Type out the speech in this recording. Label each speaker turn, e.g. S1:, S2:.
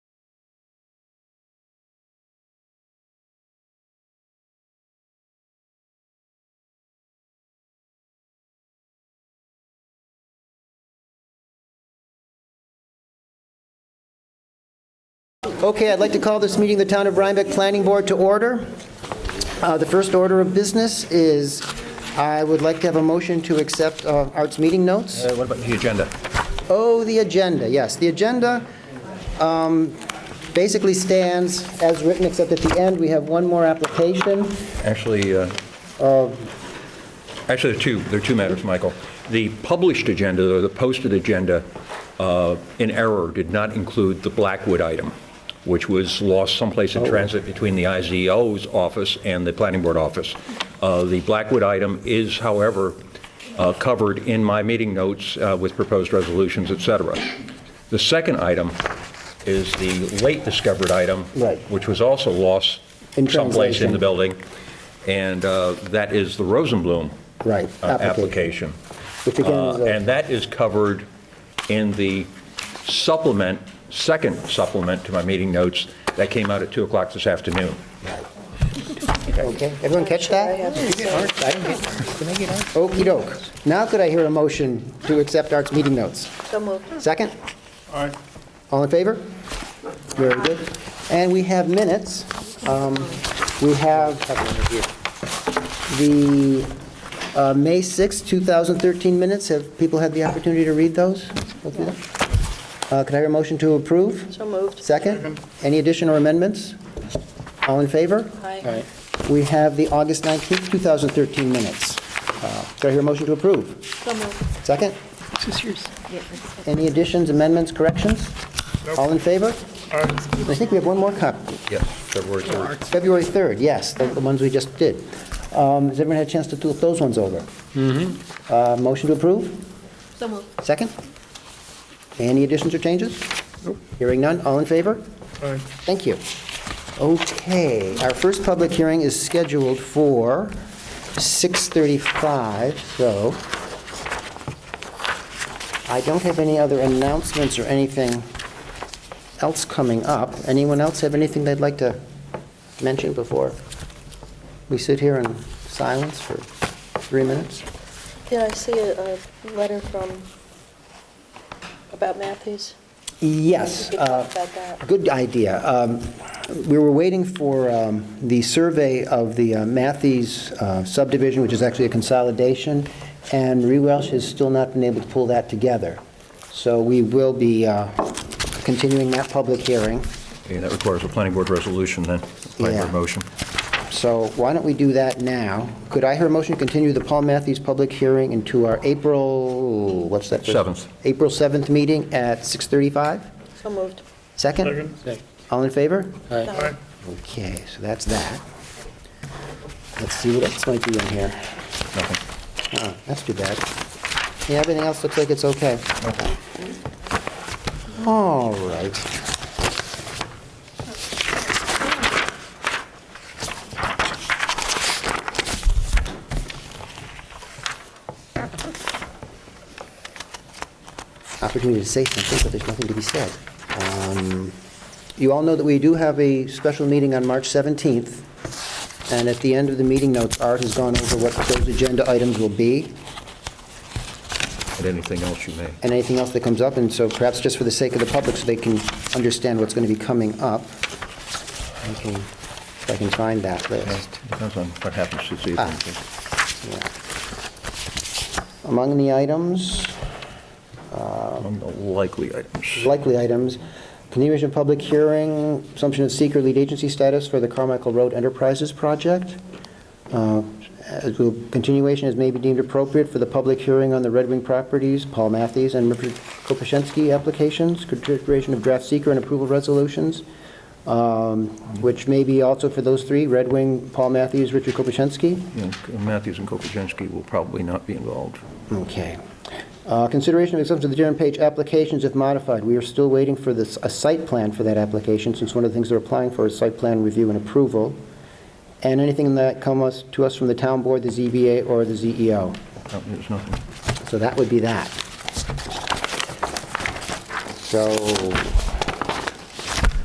S1: Okay, I'd like to call this meeting of the Town of Rhinebeck Planning Board to order. Uh, The first order of business is, I would like to have a motion to accept uh, Art's meeting notes.
S2: Uh, What about the agenda?
S1: Oh, the agenda, yes. The agenda um, basically stands as written, except at the end, we have one more application.
S2: Actually, uh, actually, there are two, there are two matters, Michael. The published agenda, or the posted agenda, uh, in error, did not include the Blackwood item, which was lost someplace in transit between the IZO's office and the planning board office. Uh, The Blackwood item is, however, uh, covered in my meeting notes uh, with proposed resolutions, et cetera. The second item is the late discovered item.
S1: Right.
S2: Which was also lost
S1: In
S2: someplace
S1: translation.
S2: in the building, and uh, that is the Rosenblum.
S1: Right,
S2: uh,
S1: application.
S2: Application.
S1: Which again is
S2: Uh,
S1: a-
S2: And that is covered in the supplement, second supplement to my meeting notes that came out at 2 o'clock this afternoon.
S1: Okay, everyone catch that? Okey doke. Now could I hear a motion to accept Art's meeting notes?
S3: So moved.
S1: Second? All right. All in favor? Very good. And we have minutes. Um, We have the uh, May sixth, two 2013 minutes. Have people had the opportunity to read those? Go through them? Uh, Could I hear a motion to approve?
S3: So moved.
S1: Second? Any additional amendments? All in favor?
S3: Aye.
S1: We have the August 19th, 2013 minutes. Uh, Could I hear a motion to approve?
S3: So moved.
S1: Second? Any additions, amendments, corrections? All in favor? I think we have one more copy.
S2: Yes, February 3rd.
S1: February 3rd, yes, the the ones we just did. Um, Has everyone had a chance to look those ones over? Mm-hmm. Motion to approve?
S3: So moved.
S1: Second? Any additions or changes? Hearing none, all in favor? Thank you. Okay, our first public hearing is scheduled for 6:35, so I don't have any other announcements or anything else coming up. Anyone else have anything they'd like to mention before we sit here in silence for three minutes?
S3: Did I see a, a letter from, about Matthews?
S1: Yes.
S3: We could
S1: uh,
S3: talk about that.
S1: Good idea. Um, We were waiting for um, the survey of the uh, Matthews uh, subdivision, which is actually a consolidation, and Rewelsh has still not been able to pull that together. So we will be uh, continuing that public hearing.
S2: Okay, that requires a planning board resolution then, planning board
S1: Yeah.
S2: motion.
S1: So why don't we do that now? Could I hear a motion to continue the Paul Matthews public hearing into our April, what's that? first-
S2: Seventh.
S1: April 7th meeting at 6:35?
S3: So moved.
S1: Second? All in favor?
S3: Aye.
S1: Okay, so that's that. Let's see what else might be in here.
S2: Nothing.
S1: Oh, that's too bad. Yeah, everything else looks like it's okay. All right. Opportunity to say something, but there's nothing to be said. Um, You all know that we do have a special meeting on March 17th. And at the end of the meeting notes, Art has gone over what those agenda items will be
S2: And anything else you may.
S1: and anything else that comes up. And so perhaps just for the sake of the public, so they can understand what's going to be coming up, I can, if I can find that list.
S2: Depends on what happens this evening.
S1: Ah. Yeah. Among the items,
S2: Among the likely items.
S1: likely items, continuation of public hearing, assumption of seeker lead agency status for the Carmichael Road Enterprises project. Uh, as will- Continuation as may be deemed appropriate for the public hearing on the Red Wing Properties, Paul Matthews and Richard Kopasensky applications, consideration of draft seeker and approval resolutions, um, which may be also for those three, Red Wing, Paul Matthews, Richard Kopasensky.
S2: You know, Matthews and Kopaczenski will probably not be involved.
S1: Okay. Uh, Consideration of exemption to the general page applications if modified. We are still waiting for this, a site plan for that application, since one of the things they're applying for is site plan review and approval. And anything that comes to us from the town board, the ZBA, or the E ZEO.
S2: No, There's nothing.
S1: So that would be that. So,